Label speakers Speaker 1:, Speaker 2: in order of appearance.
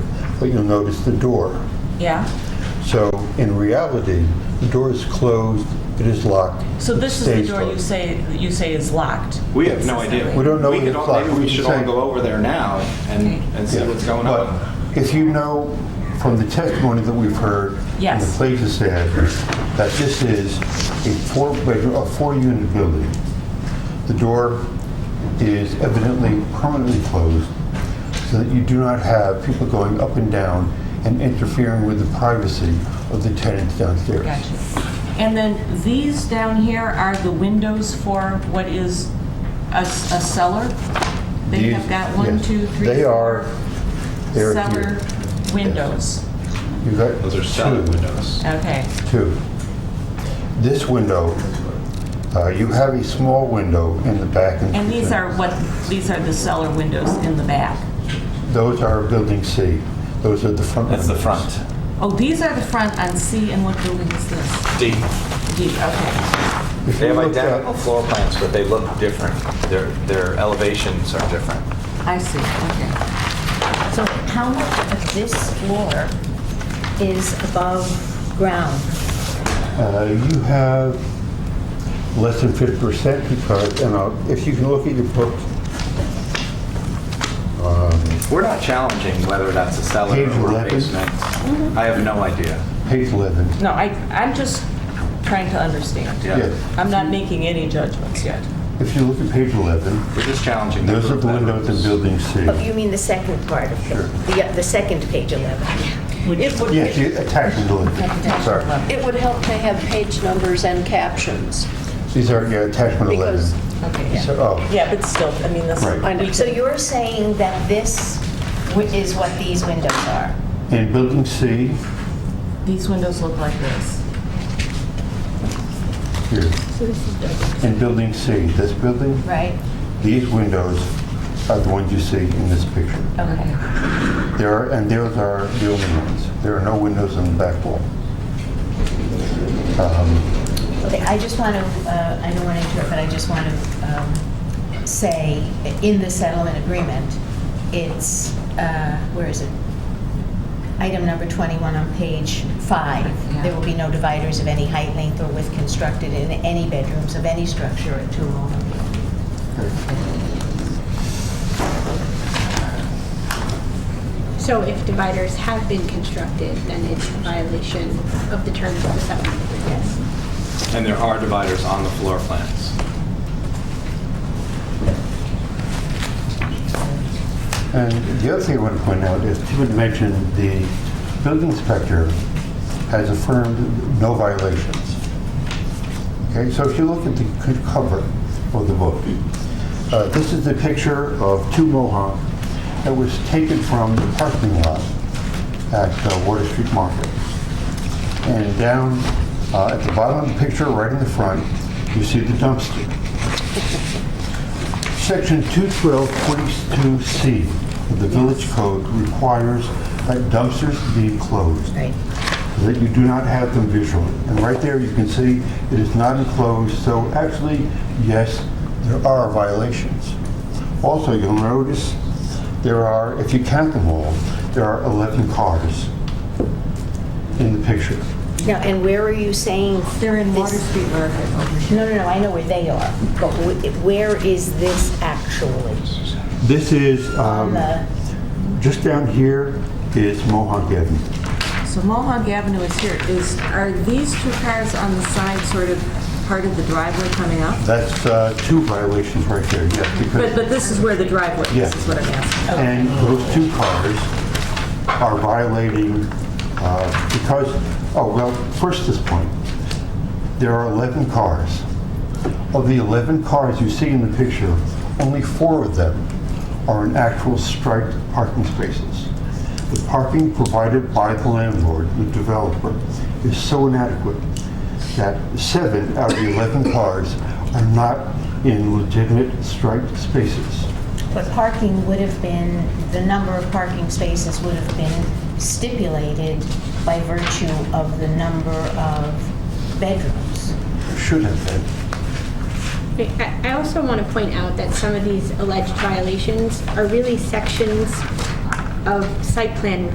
Speaker 1: but you'll notice the door.
Speaker 2: Yeah?
Speaker 1: So in reality, the door is closed, it is locked.
Speaker 2: So
Speaker 1: it
Speaker 2: this is the
Speaker 1: stays
Speaker 2: door you
Speaker 1: locked.
Speaker 2: say, that you say is locked?
Speaker 3: We have no idea.
Speaker 1: We don't know
Speaker 3: could
Speaker 1: the
Speaker 3: all-
Speaker 1: clock.
Speaker 3: Maybe we should all
Speaker 1: Same.
Speaker 3: go over there now and, and see
Speaker 1: Yeah.
Speaker 3: what's going
Speaker 1: But
Speaker 3: on.
Speaker 1: If you know from the testimony that we've heard, and the
Speaker 2: Yes.
Speaker 1: place has said, that this is a four-bedroom, a four-unit building. The door is evidently permanently closed so that you do not have people going up and down and interfering with the privacy of the tenants downstairs.
Speaker 2: Gotcha. And then these down here are the windows for what is a s- a cellar? They have
Speaker 1: These-
Speaker 2: got one,
Speaker 1: yes.
Speaker 2: two, three,
Speaker 1: They are,
Speaker 2: four
Speaker 1: they are
Speaker 2: cellar
Speaker 1: here.
Speaker 2: windows.
Speaker 1: You've got
Speaker 3: Those are solid
Speaker 1: two.
Speaker 3: windows.
Speaker 2: Okay,
Speaker 1: Two, this window, uh, you have a small window in the back.
Speaker 2: and these are what, these are the cellar windows in the back?
Speaker 1: Those are building C. Those are the front.
Speaker 4: That's the
Speaker 1: windows.
Speaker 4: front.
Speaker 2: Oh, these are the front on C, and what building is this?
Speaker 3: D.
Speaker 2: D, okay.
Speaker 1: If
Speaker 4: They
Speaker 1: you
Speaker 4: have
Speaker 1: look at-
Speaker 4: identical floor plans, but they look different. Their, their elevations are different.
Speaker 2: I see, okay.
Speaker 5: So how much of this floor is above ground?
Speaker 1: Uh, You have less than 50% because, and I'll- if you can look at your book,
Speaker 4: We're not challenging whether that's a cellar
Speaker 1: Page
Speaker 4: or a
Speaker 1: 11.
Speaker 4: basement. I have no idea.
Speaker 1: page 11.
Speaker 2: No, I, I'm just trying to understand.
Speaker 4: Yeah.
Speaker 1: Yes.
Speaker 2: I'm not making any judgments yet.
Speaker 1: If you look at page 11,
Speaker 4: We're just challenging.
Speaker 1: those are the
Speaker 4: number of
Speaker 1: windows in
Speaker 4: bedrooms.
Speaker 1: building C.
Speaker 5: Oh, you mean the second part of the, the- the second page 11?
Speaker 2: It would
Speaker 1: Yes, you attached building, sorry.
Speaker 6: It would help to have page numbers and captions,
Speaker 1: These are, yeah, attachment 11.
Speaker 6: because,
Speaker 2: Okay, yeah.
Speaker 1: So, oh,
Speaker 2: Yeah, but still, I mean, this.
Speaker 1: Right. I
Speaker 6: know.
Speaker 5: So you're saying that this wi- is what these windows are?
Speaker 1: and building C,
Speaker 2: These windows look like this.
Speaker 1: Here. In building C, this building,
Speaker 5: Right.
Speaker 1: these windows are the ones you see in this picture.
Speaker 5: Okay.
Speaker 1: There are, and those are the only ones. There are no windows on the back wall. Um,
Speaker 5: Okay, I just want to, I don't want to interrupt, but I just want to say, in the settlement agreement, it's, uh, where is it? Item number 21 on page five. There will be no dividers of any height, length, or width constructed in any bedrooms of any structure or two or more.
Speaker 7: So if dividers have been constructed, then it's a violation of the terms of the settlement agreement.
Speaker 5: Yes.
Speaker 3: And there are dividers on the floor plans.
Speaker 1: And the other thing I want to point out is Tim had mentioned the building inspector has affirmed no violations. Okay, so if you look at the c- cover of the book, uh, this is the picture of two Mohawk that was taken from the parking lot at uh, Water Street Market. And down uh, at the bottom of the picture, right in the front, you see the dumpster. Section 212.42C of the Village Code requires that dumpsters be enclosed,
Speaker 5: Right.
Speaker 1: so that you do not have them visual. And right there, you can see it is not enclosed, so actually, yes, there are violations. Also, you'll notice there are, if you count them all, there are 11 cars in the picture.
Speaker 5: Now, and where are you saying?
Speaker 2: They're in Water
Speaker 5: this-
Speaker 2: Street Market over here.
Speaker 5: No, no, no, I know where they are, but wh- where is this actually?
Speaker 1: This is,
Speaker 5: On
Speaker 1: um,
Speaker 5: the,
Speaker 1: just down here is Mohawk Avenue.
Speaker 2: So Mohawk Avenue is here. Is, are these two cars on the side sort of part of the driveway coming up?
Speaker 1: That's uh, two violations right there, yes, because...
Speaker 2: But, but this is where the driveway is, is
Speaker 1: Yeah.
Speaker 2: what I'm asking. Okay.
Speaker 1: And those two cars are violating, uh, because, oh, well, first this point, there are 11 cars. Of the 11 cars you see in the picture, only four of them are in actual striped parking spaces. The parking provided by the landlord, the developer, is so inadequate that seven out of the 11 cars are not in legitimate striped spaces.
Speaker 5: But parking would have been, the number of parking spaces would have been stipulated by virtue of the number of bedrooms.
Speaker 1: Should have been.
Speaker 7: Wait, I I also want to point out that some of these alleged violations are really sections of site plan